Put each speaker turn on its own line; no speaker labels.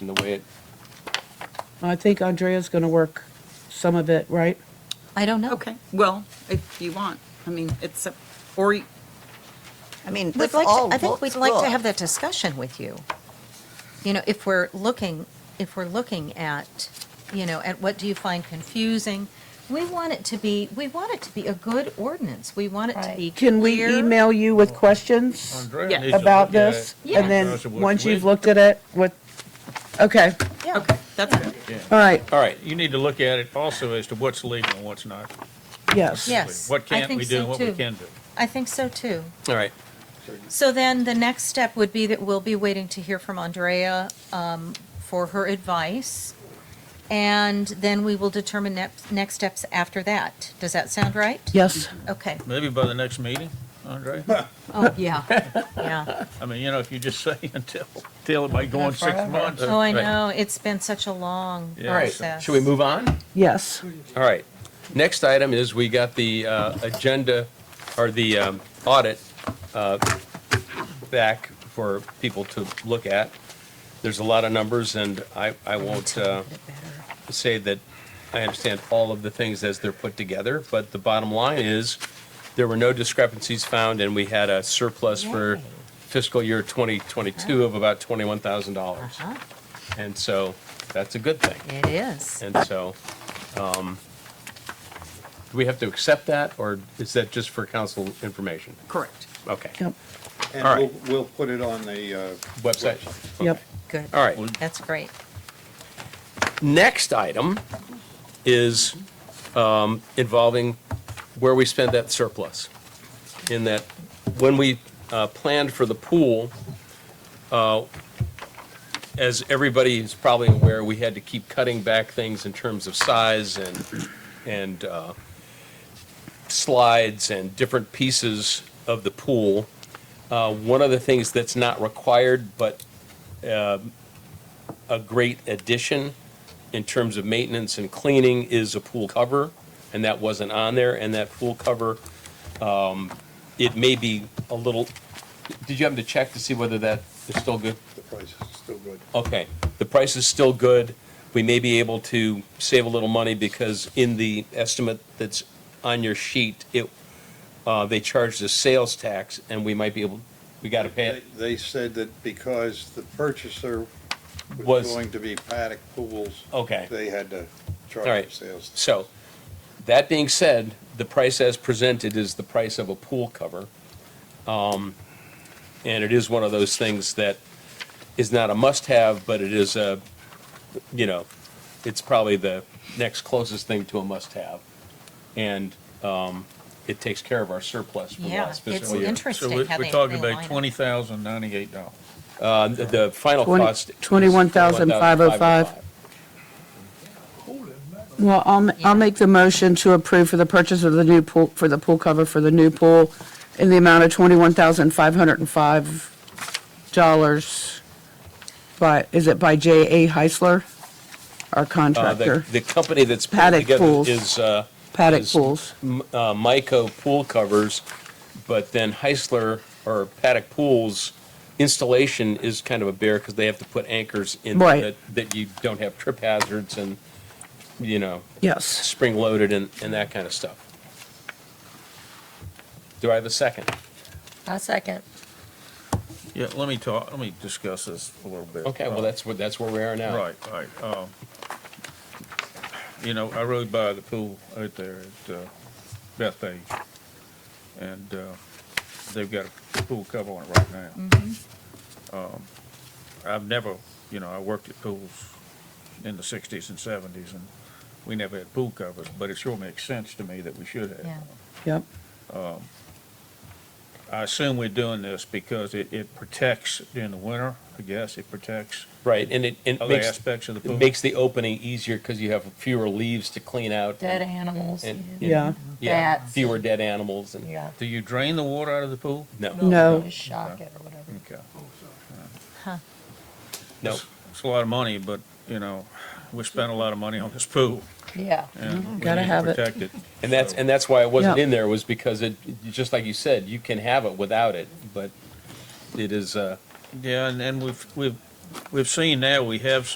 the way it,
I think Andrea's going to work some of it, right?
I don't know.
Okay, well, if you want, I mean, it's, a- or, y-
I mean,
We'd
that's
like,
all
to- I think we'd
books
like to
look.
have that discussion with you. You know, if we're looking, if we're looking at, you know, at what do you find confusing? We want it to be, we want it to be a good ordinance. We want it to
Right.
be
Can we
clear.
email you with questions
Andrea
Yeah.
needs to
about
look at
this?
it.
Yeah.
And then,
Andrea should look
once you've
with-
looked at it, what, okay,
okay, that's good.
all right,
all right,
You need to look at it also as to what's legal and what's not.
yes.
Yeah. Yes,
What
I
can't
think
we do
so
and what we
too.
can do.
I think so too.
all right.
So then the next step would be that we'll be waiting to hear from Andrea um, for her advice. And then we will determine next, next steps after that. Does that sound right?
Yes,
Okay.
Maybe by the next meeting, Andrea?
Oh, yeah, yeah.
I mean, you know, if you just say until, until it might go on six months.
Oh, I
Right.
know, it's been such a long
Yeah.
All right,
process.
should we move on?
yes.
All right. Next item is we got the uh, agenda, or the um, audit uh, back for people to look at. There's a lot of numbers, and I, I won't uh, say that I understand all of the things as they're put together, but the bottom line is, there were no discrepancies found, and we had a surplus for
Yay.
fiscal year 2022 of about $21,000.
Uh-huh,
And so, that's a good thing.
It is.
And so, um, do we have to accept that, or is that just for council information?
Correct.
Okay.
Yep,
And
All
we'll,
right.
we'll put it on the, uh,
Website?
yep.
Good.
All right.
That's great.
Next item is um, involving where we spend that surplus. In that, when we uh, planned for the pool, uh, as everybody is probably aware, we had to keep cutting back things in terms of size and, and uh, slides and different pieces of the pool. Uh, One of the things that's not required, but um, a great addition in terms of maintenance and cleaning is a pool cover, and that wasn't on there, and that pool cover, um, it may be a little, did you happen to check to see whether that is still good?
the price is still good.
Okay, the price is still good, we may be able to save a little money because in the estimate that's on your sheet, it, uh, they charged a sales tax, and we might be able, we gotta pay
They
it.
they said that because the purchaser
Was-
was going to be paddock pools.
Okay.
They had to charge
All right.
them sales.
So, that being said, the price as presented is the price of a pool cover. Um, And it is one of those things that is not a must-have, but it is a, you know, it's probably the next closest thing to a must-have. And um, it takes care of our surplus from
Yeah,
last
it's
fiscal year.
interesting
So we-
how
we're
they-
talking
they
about
line up.
twenty thousand ninety-eight dollars.
Uh, The the final
Twenty-
cost. is
$21,505. Well, I'll, ma- I'll make the motion to approve for the purchase of the new pool, for the pool cover for the new pool in the amount of $21,505 by, is it by J.A. Heisler, our
Uh,
contractor?
The the company that's put
Paddock
together
pools.
is. uh,
Paddock
is-
pools.
uh, Myco pool covers, but then Heisler or Paddock Pools installation is kind of a bear because they have to put anchors in
Right.
that, that you don't have trip hazards and, you know,
Yes.
spring loaded and, and that kind of stuff. Do I have a second?
A second.
Yeah, let me talk, let me discuss this a little bit.
Okay, well,
Uh,
that's what, that's where we are now.
Right, right. um, You know, I rode by the pool out there at uh, Bethpage, and uh, they've got a pool cover on it right now. Um, I've never, you know, I worked at pools in the sixties and seventies, and we never had pool covers, but it sure makes sense to me that we should have.
Yeah.
one.
Yep.
I assume we're doing this because it, it protects during the winter, I guess, it protects
Right, and it, and it
other
makes,
aspects of the pool.
it makes the opening easier because you have fewer leaves to clean out.
Dead
and-
animals.
and-
Yeah.
Yeah,
Bats.
fewer dead animals and,
Yeah.
Do you drain the water out of the pool?
no,
No.
Just shock it or whatever.
Okay.
no.
It's a lot of money, but, you know, we spent a lot of money on this pool.
Yeah.
and we
Mm-hmm. Gotta
need to
have it.
protect it.
And that's,
So-
and that's why it wasn't
Yeah.
in there, was because it, just like you said, you can have it without it, but it is, uh,
Yeah, and, and we've, we've, we've seen now, we have